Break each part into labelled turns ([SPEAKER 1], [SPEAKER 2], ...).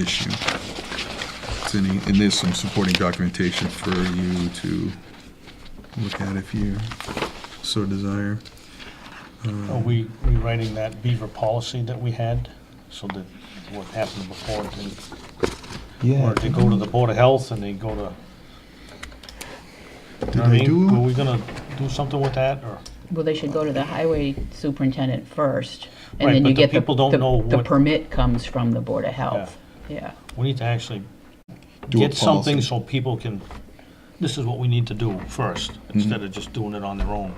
[SPEAKER 1] issue. It's any, and there's some supporting documentation for you to look at if you so desire.
[SPEAKER 2] Are we rewriting that beaver policy that we had, so that what happened before didn't, or they go to the Board of Health and they go to, you know what I
[SPEAKER 1] Did they
[SPEAKER 2] mean?
[SPEAKER 1] do-
[SPEAKER 2] Were we gonna do something with that, or?
[SPEAKER 3] Well, they should go to the highway superintendent first, and
[SPEAKER 2] Right,
[SPEAKER 3] then
[SPEAKER 2] but
[SPEAKER 3] you
[SPEAKER 2] the
[SPEAKER 3] get the,
[SPEAKER 2] people don't know
[SPEAKER 3] the the
[SPEAKER 2] what-
[SPEAKER 3] permit comes from the Board of Health. Yeah,
[SPEAKER 2] We need to actually
[SPEAKER 1] Do a
[SPEAKER 2] get something
[SPEAKER 1] policy.
[SPEAKER 2] so people can, this is what we need to do first,
[SPEAKER 1] Mm-hmm.
[SPEAKER 2] instead of just doing it on their own.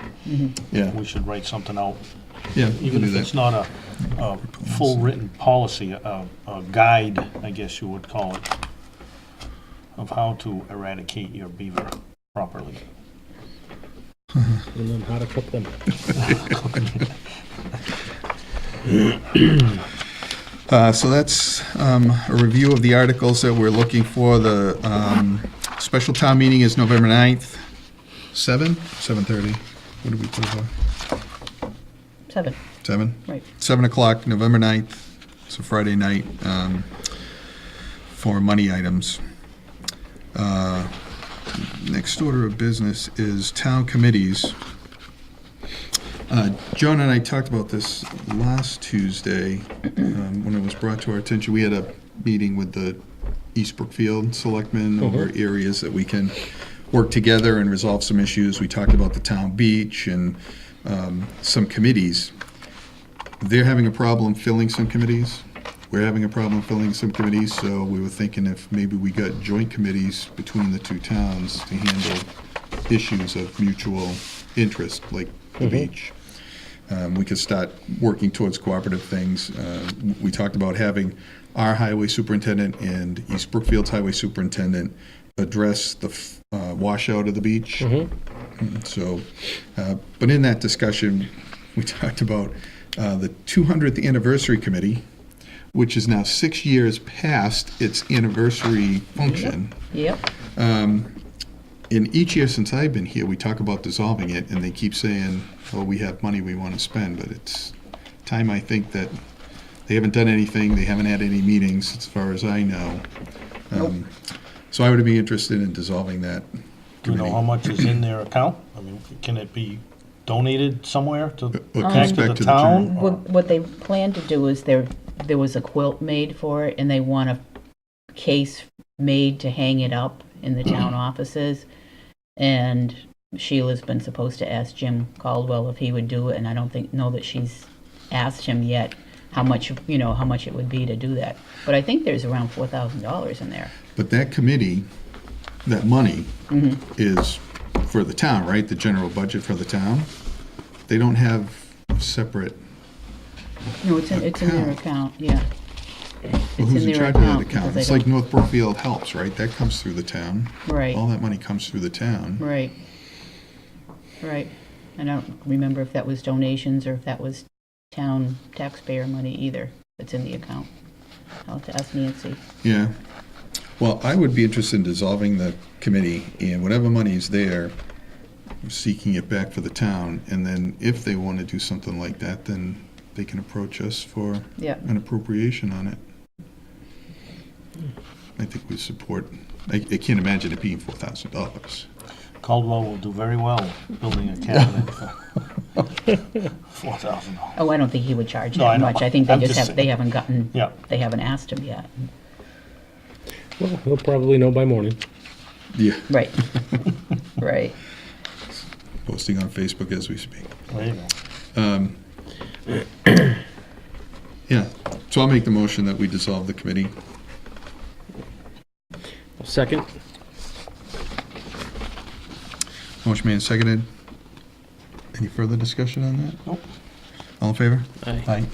[SPEAKER 1] Yeah,
[SPEAKER 2] We should write something out,
[SPEAKER 1] yeah, you can
[SPEAKER 2] even
[SPEAKER 1] do
[SPEAKER 2] if it's
[SPEAKER 1] that.
[SPEAKER 2] not a, a full written policy, a, a guide, I guess you would call it, of how to eradicate your beaver properly.
[SPEAKER 4] and then how to cook them.
[SPEAKER 1] Uh, so that's, um, a review of the articles that we're looking for. The, um, special town meeting is November 9th, seven, seven-thirty. What did we put it for?
[SPEAKER 3] seven,
[SPEAKER 1] Seven?
[SPEAKER 3] right.
[SPEAKER 1] 7 o'clock, November 9th, it's a Friday night, um, for money items. Uh, Next order of business is town committees. Uh, Joan and I talked about this last Tuesday, um, when it was brought to our attention. We had a meeting with the East Brookfield Selectmen over areas that we can work together and resolve some issues. We talked about the town beach and um, some committees they're having a problem filling some committees. We're having a problem filling some committees, so we were thinking if maybe we got joint committees between the two towns to handle issues of mutual interest, like the beach. Um, we could start working towards cooperative things. Uh, we talked about having our highway superintendent and East Brookfield's highway superintendent address the f- uh, washout of the beach. So, uh, but in that discussion, we talked about uh, the 200th anniversary committee, which is now six years past its anniversary function.
[SPEAKER 3] Yep,
[SPEAKER 1] In each year since I've been here, we talk about dissolving it, and they keep saying, "Oh, we have money we want to spend," but it's time I think that they haven't done anything. They haven't had any meetings, as far as I know. Um, So I would be interested in dissolving that
[SPEAKER 2] Do you know how
[SPEAKER 1] committee.
[SPEAKER 2] much is in their account? I mean, can it be donated somewhere to,
[SPEAKER 1] Or
[SPEAKER 2] back to the
[SPEAKER 1] expect to the
[SPEAKER 2] town?
[SPEAKER 3] what, what they plan to do is there, there was a quilt made for it, and they want a case made to hang it up in the town offices. And Sheila's been supposed to ask Jim Caldwell if he would do it, and I don't think, know that she's asked him yet how much, you know, how much it would be to do that. But I think there's around four thousand dollars in there.
[SPEAKER 1] But that committee, that money
[SPEAKER 3] Mm-hmm.
[SPEAKER 1] is for the town, right? The general budget for the town? They don't have separate,
[SPEAKER 3] No, it's in, it's in their account, yeah.
[SPEAKER 1] well, who's
[SPEAKER 3] in
[SPEAKER 1] in
[SPEAKER 3] their
[SPEAKER 1] charge of that
[SPEAKER 3] account, because
[SPEAKER 1] account?
[SPEAKER 3] they
[SPEAKER 1] It's like North Brookfield Helps, right? That comes through the town.
[SPEAKER 3] Right.
[SPEAKER 1] All that money comes through the town.
[SPEAKER 3] Right. Right. And I don't remember if that was donations or if that was town taxpayer money either that's in the account. I'll have to ask Nancy.
[SPEAKER 1] Yeah. Well, I would be interested in dissolving the committee and whatever money is there, seeking it back for the town. And then if they want to do something like that, then they can approach us for
[SPEAKER 3] Yeah.
[SPEAKER 1] an appropriation on it. I think we support, I, I can't imagine it being four thousand dollars.
[SPEAKER 2] Caldwell will do very well building a cabinet for four thousand dollars.
[SPEAKER 3] Oh, I don't think he would charge
[SPEAKER 2] No, I
[SPEAKER 3] that
[SPEAKER 2] know.
[SPEAKER 3] much. I think they
[SPEAKER 2] I'm
[SPEAKER 3] just
[SPEAKER 2] just
[SPEAKER 3] have, they haven't gotten,
[SPEAKER 2] Yeah.
[SPEAKER 3] they haven't asked him yet.
[SPEAKER 4] Well, he'll probably know by morning.
[SPEAKER 1] Yeah,
[SPEAKER 3] Right. Right.
[SPEAKER 1] posting on Facebook as we speak.
[SPEAKER 2] There you go.
[SPEAKER 1] Yeah, so I'll make the motion that we dissolve the committee.
[SPEAKER 4] Second?
[SPEAKER 1] Motion made and seconded. Any further discussion on that?
[SPEAKER 2] Nope.
[SPEAKER 1] All in favor?
[SPEAKER 4] Aye.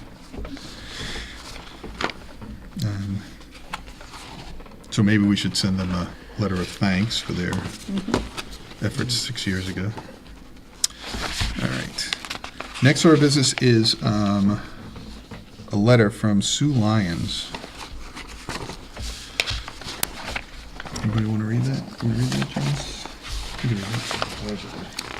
[SPEAKER 1] Um, So maybe we should send them a letter of thanks for their efforts six years ago. All right. Next order of business is um, a letter from Sue Lyons. Anybody want to read that? Want to read that, James? You can read it.